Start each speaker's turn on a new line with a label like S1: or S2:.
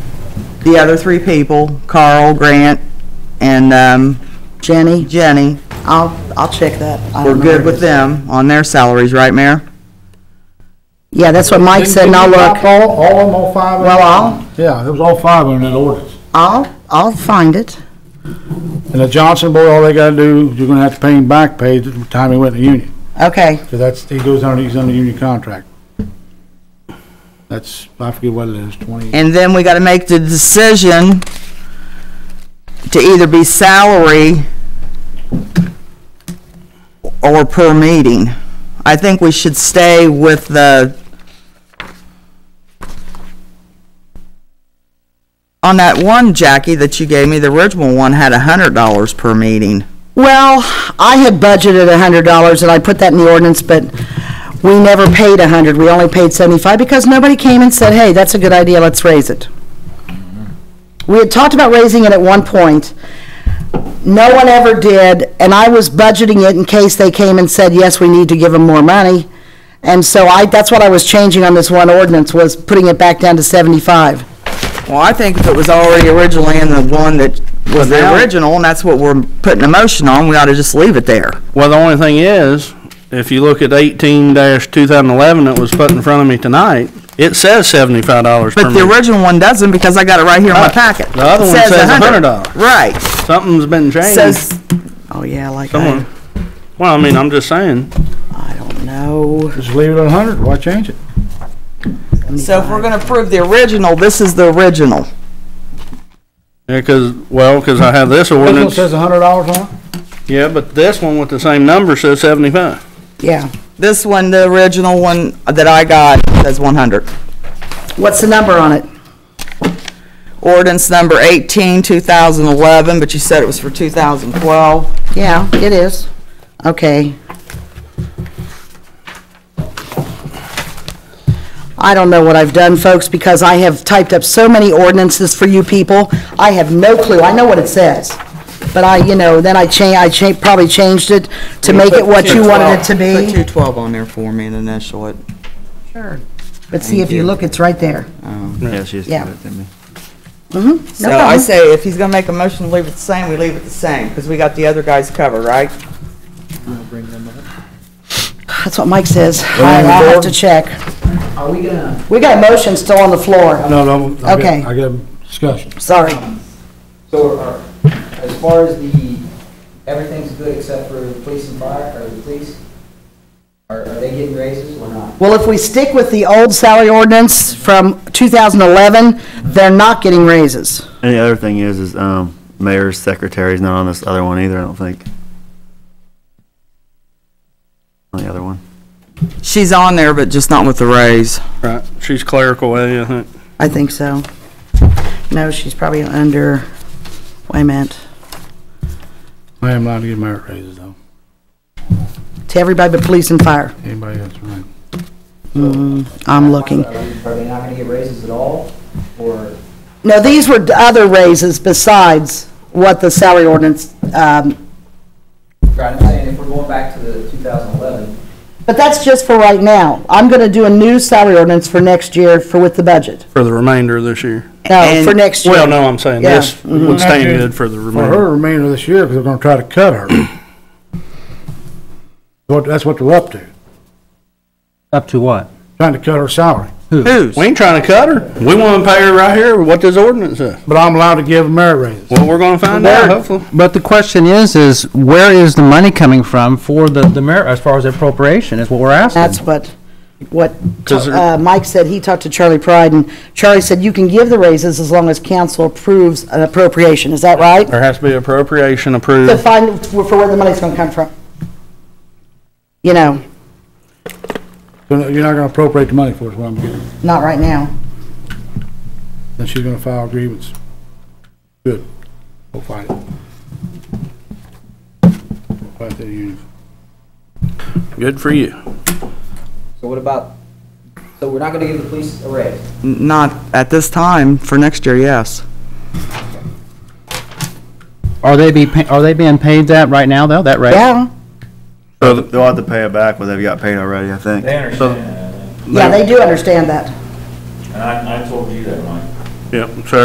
S1: the other three people, Carl, Grant, and um,
S2: Jenny,
S1: Jenny,
S2: I'll, I'll check that. I
S1: we're
S2: don't know where
S1: good
S2: it
S1: with
S2: is.
S1: them on their salaries, right, Mayor?
S2: Yeah, that's what Mike said, and I'll
S3: Didn't you knock
S2: look.
S3: All, all of them, all five of them?
S2: Well, I'll,
S3: Yeah, it was all five of them in that ordinance.
S2: I'll, I'll find it.
S3: And the Johnson boy, all they gotta do, you're gonna have to pay him back pay the time he went to union.
S2: Okay,
S3: So that's, he goes under, he's under union contract. That's, I forget what it is, twenty,
S1: And then we gotta make the decision to either be salary or per meeting. I think we should stay with the on that one, Jackie, that you gave me, the original one had a hundred dollars per meeting.
S2: well, I had budgeted a hundred dollars, and I put that in the ordinance, but we never paid a hundred, we only paid seventy-five, because nobody came and said, hey, that's a good idea, let's raise it. We had talked about raising it at one point, no one ever did, and I was budgeting it in case they came and said, yes, we need to give them more money. And so I, that's what I was changing on this one ordinance, was putting it back down to seventy-five.
S1: Well, I think if it was already originally in the one that was the original, and that's what we're putting a motion on, we ought to just leave it there.
S4: Well, the only thing is, if you look at eighteen two thousand eleven that was put in front of me tonight, it says seventy-five dollars per
S1: But the
S4: meeting.
S1: original one doesn't because I got it right here in my
S4: Right.
S1: packet.
S4: The other one
S1: It
S4: says
S1: $100.
S4: $100.
S1: Right.
S4: Something's been changed.
S1: Says, oh yeah, like I,
S4: Someone, well, I mean, I'm just saying,
S2: I don't know.
S3: just leave it at a hundred, why change it?
S1: so if we're gonna approve the original, this is the original.
S4: yeah, 'cause well, 'cause I have this
S3: This one
S4: ordinance,
S3: says a hundred dollars on it?
S4: yeah, but this one with the same number says seventy-five.
S2: Yeah.
S1: This one, the original one that I got says one hundred.
S2: What's the number on it?
S1: Ordinance number 18, 2011. but you said it was for two thousand twelve.
S2: Yeah, it is. Okay. I don't know what I've done, folks, because I have typed up so many ordinances for you people. I have no clue. I know what it says. But I, you know, then I cha, I cha, probably changed it to make it what you wanted it to
S1: Put
S2: be.
S1: two twelve on there for me and initial it.
S2: But see, if you look, it's right there.
S1: um,
S5: Yeah, she's
S2: Yeah.
S5: giving it to me.
S1: So I
S2: problem.
S1: say, if he's gonna make a motion to leave it the same, we leave it the same, because we got the other guys covered, right?
S2: That's what Mike says. I- I'll have to check.
S6: Are we gonna,
S2: We got a motion still on the floor.
S3: No, no, I
S2: Okay.
S3: get, I get a discussion.
S2: Sorry.
S6: so are, as far as the, everything's good except for the police and fire, or the police? Are, are they getting raises or not?
S2: Well, if we stick with the old salary ordinance from 2011, they're not getting raises.
S5: And the other thing is, is, um, mayor's secretary's not on this other one either, I don't think. On the other one.
S1: She's on there, but just not with the raise.
S4: Right, she's clerical, eh, I think.
S2: I think so. No, she's probably under, wait a minute,
S3: I am allowed to give merit raises though,
S2: to everybody but police and fire.
S3: anybody else, right?
S2: I'm looking.
S6: Are we- are they not gonna get raises at all, or?
S2: No, these were other raises besides what the salary ordinance, um,
S6: Right, I'm saying if we're going back to the 2011,
S2: but that's just for right now. I'm going to do a new salary ordinance for next year for with the budget.
S4: for the remainder of this year.
S2: No,
S1: And-
S2: for next year.
S4: Well, no, I'm saying
S2: Yeah.
S4: this would stand good for the
S3: Mm-hmm. For her
S4: remainder.
S3: remainder of this year, because they're gonna try to cut her. What, that's what they're up to,
S7: Up to what?
S3: trying to cut her salary.
S1: Who's?
S4: We ain't trying to cut her. We want to pay her right here with what this ordinance says.
S3: But I'm allowed to give merit raises.
S4: Well, we're going to find out, hopefully.
S7: But the question is, is where is the money coming from for the, the merit, as far as appropriation, is what we're asking.
S2: That's what, what
S4: 'Cause there-
S2: uh, Mike said, he talked to Charlie Pride, and Charlie said, you can give the raises as long as council approves an appropriation, is that right?
S4: There has to be appropriation
S2: To
S4: approved.
S2: find, for where the money's gonna come from. You know,
S3: So You're not gonna appropriate the money for it, is what I'm getting.
S2: not right now.
S3: Then she's gonna file grievance. Good. We'll fight it. Fight the union.
S4: Good for you.
S6: so what about, so we're not gonna give the police a raise?
S1: Not at this time, for next year, yes.
S7: Are they be, pa- are they being paid that right now, though, that rate?
S2: Yeah,
S5: So they'll have to pay it back, what they've got paid already, I think.
S8: They understand that,
S2: yeah, they do understand that.
S8: and I, I told you that, Mike.
S4: Yep, so